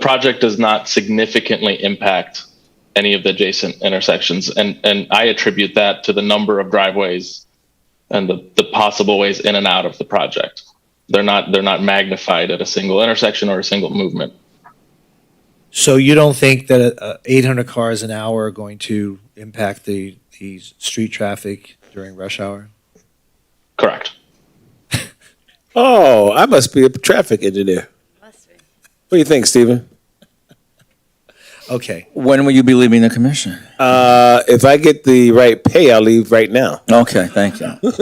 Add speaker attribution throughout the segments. Speaker 1: project does not significantly impact any of the adjacent intersections. And, and I attribute that to the number of driveways and the, the possible ways in and out of the project. They're not, they're not magnified at a single intersection or a single movement.
Speaker 2: So you don't think that uh, 800 cars an hour are going to impact the, the street traffic during rush hour?
Speaker 1: Correct.
Speaker 3: Oh, I must be a traffic engineer. What do you think, Stephen?
Speaker 2: Okay,
Speaker 4: When will you be leaving the commission?
Speaker 3: Uh, if I get the right pay, I'll leave right now.
Speaker 4: Okay, thank you.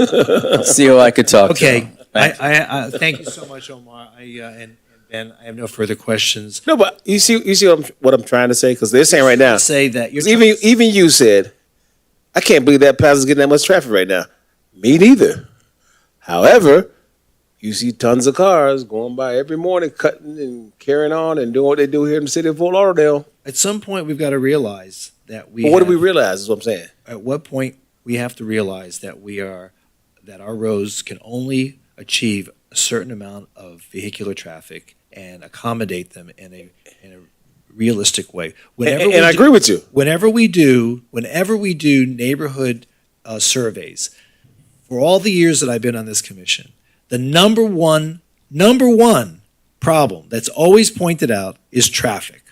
Speaker 4: See who I could talk to.
Speaker 2: okay. I,
Speaker 4: Thank
Speaker 2: I, I, thank you so much, Omar. I, uh, and, and Ben, I have no further questions.
Speaker 3: No, but you see, you see what I'm, what I'm trying to say because they're saying right now.
Speaker 2: Say that you're.
Speaker 3: 'cause Even even you said, I can't believe that plaza's getting that much traffic right now. Me neither. However, you see tons of cars going by every morning, cutting and carrying on and doing what they do here in the city of Fort Lauderdale.
Speaker 2: At some point, we've got to realize that we.
Speaker 3: But what do we
Speaker 2: have-
Speaker 3: realize? Is what I'm saying.
Speaker 2: At what point, we have to realize that we are, that our roads can only achieve a certain amount of vehicular traffic and accommodate them in a, in a realistic way.
Speaker 3: And,
Speaker 2: Whenever
Speaker 3: and-
Speaker 2: we
Speaker 3: and I
Speaker 2: do-
Speaker 3: agree with you.
Speaker 2: whenever we do whenever we do neighborhood uh, surveys for all the years that i've been on this commission the number one number one problem that's always pointed out is traffic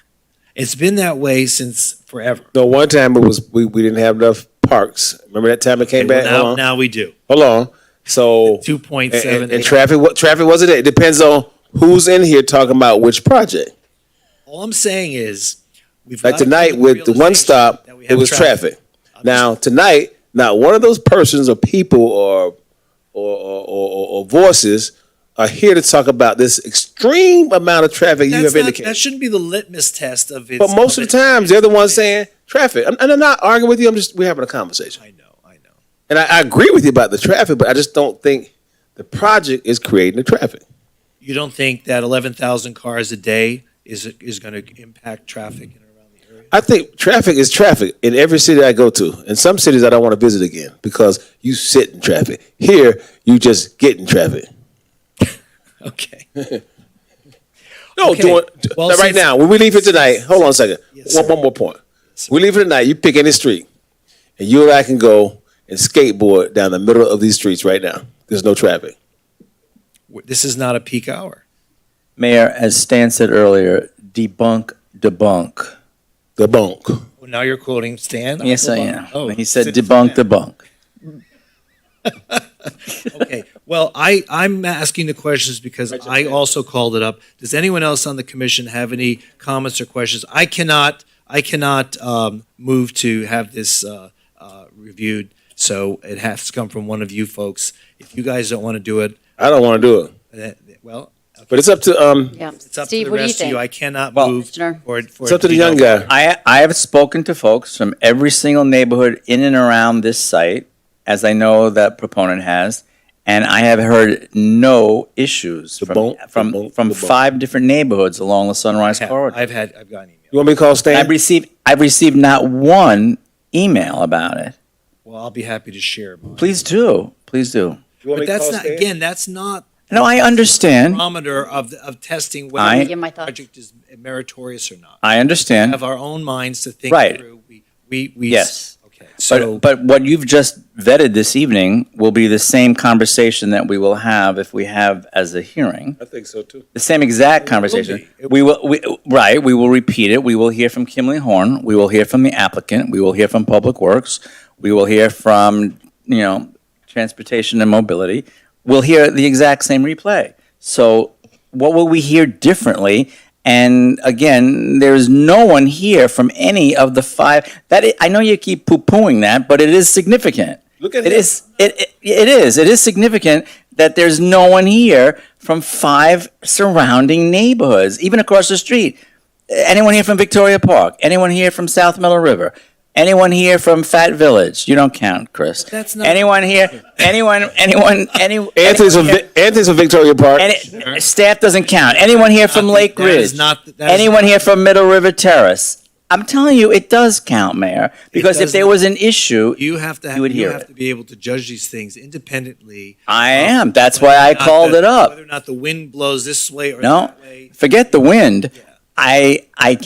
Speaker 2: it's been that way since forever
Speaker 3: No, one time it was we, we didn't have enough parks. Remember that time it came
Speaker 2: And
Speaker 3: back? Hold
Speaker 2: now,
Speaker 3: on.
Speaker 2: now we do
Speaker 3: Hold on. So and,
Speaker 2: 2.7
Speaker 3: and- and traffic. What traffic was it? It depends on who's in here talking about which project.
Speaker 2: all i'm saying is we've
Speaker 3: Like
Speaker 2: gotta come
Speaker 3: tonight
Speaker 2: to
Speaker 3: with the one
Speaker 2: realization
Speaker 3: stop,
Speaker 2: that we
Speaker 3: it
Speaker 2: have
Speaker 3: was traffic.
Speaker 2: I'm
Speaker 3: Now tonight, not one of those persons or people or or or, or, or voices are here to talk about this extreme amount of traffic you
Speaker 2: that's
Speaker 3: have
Speaker 2: not-
Speaker 3: indicated.
Speaker 2: that shouldn't be the litmus test of it
Speaker 3: but most of the times, they're the ones saying traffic. I'm- And I'm not arguing with you. I'm just we're having a conversation.
Speaker 2: i know i know
Speaker 3: And I, I agree with you about the traffic, but I just don't think the project is creating the traffic.
Speaker 2: You don't think that 11,000 cars a day is, is going to impact traffic in and around the area?
Speaker 3: I think traffic is traffic in every city I go to. In some cities, I don't want to visit again because you sit in traffic. Here, you just get in traffic.
Speaker 2: Okay.
Speaker 3: No,
Speaker 2: Okay.
Speaker 3: doing
Speaker 2: Well,
Speaker 3: now, right
Speaker 2: since-
Speaker 3: now. When we leave here tonight, hold on a second.
Speaker 2: Yes,
Speaker 3: one,
Speaker 2: sir.
Speaker 3: one more point. We leave here tonight. You pick any street, and you and I can go and skateboard down the middle of these streets right now. There's no traffic.
Speaker 2: W- This is not a peak hour.
Speaker 4: Mayor, as Stan said earlier, debunk, debunk.
Speaker 3: The bunk.
Speaker 2: Well, Now you're quoting Stan?
Speaker 4: Yes, I
Speaker 2: Obama.
Speaker 4: am.
Speaker 2: Oh,
Speaker 4: When he said
Speaker 2: sit-
Speaker 4: debunk, debunk.
Speaker 2: Okay. Well, I, I'm asking the questions because I also called it up. Does anyone else on the commission have any comments or questions? I cannot, I cannot um, move to have this uh, uh, reviewed, so it has to come from one of you folks. If you guys don't want to do it,
Speaker 3: I don't want to do it,
Speaker 2: then- well,
Speaker 3: but it's up to um.
Speaker 5: Yeah.
Speaker 2: It's up
Speaker 5: Steve,
Speaker 2: to the
Speaker 5: what do you
Speaker 2: rest of
Speaker 5: think?
Speaker 2: you. I cannot
Speaker 4: Well-
Speaker 2: move
Speaker 5: Commissioner?
Speaker 2: for for
Speaker 3: It's up to the
Speaker 2: you know,
Speaker 3: young guy.
Speaker 4: I, I have spoken to folks from every single neighborhood in and around this site, as I know that proponent has, and I have heard no issues from,
Speaker 3: bone, the
Speaker 4: from,
Speaker 3: bone,
Speaker 4: from
Speaker 3: the bone.
Speaker 4: five different neighborhoods along the Sunrise
Speaker 2: I've-
Speaker 4: Corridor.
Speaker 2: I've had I've gotten email.
Speaker 3: You want me to call Stan?
Speaker 4: I've received, I've received not one email about it.
Speaker 2: Well, I'll be happy to share. Mine.
Speaker 4: Please do, please do.
Speaker 3: You want me
Speaker 2: but
Speaker 3: to
Speaker 2: that's
Speaker 3: call
Speaker 2: not
Speaker 3: Stan?
Speaker 2: again. That's not
Speaker 4: No, I
Speaker 2: the
Speaker 4: understand,
Speaker 2: barometer of of testing
Speaker 4: I-
Speaker 2: whether
Speaker 5: Give my
Speaker 2: the
Speaker 5: thoughts.
Speaker 2: project is meritorious or not.
Speaker 4: I
Speaker 2: We
Speaker 4: understand.
Speaker 2: have our own minds to think
Speaker 4: Right.
Speaker 2: through. We we, we
Speaker 4: Yes.
Speaker 2: Okay.
Speaker 4: But,
Speaker 2: So
Speaker 4: but what you've just vetted this evening will be the same conversation that we will have if we have as a hearing.
Speaker 3: I think so too.
Speaker 4: The same exact
Speaker 2: will
Speaker 4: conversation.
Speaker 2: be. It
Speaker 4: We will, we, right, we will repeat it. We will hear from Kimley Horn. We will hear from the applicant. We will hear from Public Works. We will hear from, you know, Transportation and Mobility. We'll hear the exact same replay. So what will we hear differently? And again, there is no one here from any of the five, that, i- I know you keep poo-pooing that, but it is significant.
Speaker 3: Look at
Speaker 4: It
Speaker 3: him.
Speaker 4: is, it, it, it is, it is significant that there's no one here from five surrounding neighborhoods, even across the street. Anyone here from Victoria Park? Anyone here from South Middle River? Anyone here from Fat Village? You don't count, Chris.
Speaker 2: that's not-
Speaker 4: Anyone here, anyone, anyone, any.
Speaker 3: Anthony's from
Speaker 4: anyone
Speaker 3: Vi- Anthony's from Victoria Park.
Speaker 4: any, staff doesn't count. Anyone here from
Speaker 2: That
Speaker 4: Lake
Speaker 2: is
Speaker 4: Ridge?
Speaker 2: not- that is-
Speaker 4: Anyone here from Middle River Terrace? I'm telling you, it does count, Mayor. Because if
Speaker 2: does
Speaker 4: there
Speaker 2: not.
Speaker 4: was an issue,
Speaker 2: you have to have,
Speaker 4: you would hear
Speaker 2: have
Speaker 4: it.
Speaker 2: to be able to judge these things independently.
Speaker 4: I
Speaker 2: of
Speaker 4: am. That's
Speaker 2: whether
Speaker 4: why
Speaker 2: or
Speaker 4: I
Speaker 2: not
Speaker 4: called
Speaker 2: the-
Speaker 4: it up.
Speaker 2: Whether or not the wind blows this way or
Speaker 4: No,
Speaker 2: that way.
Speaker 4: forget the wind. I, I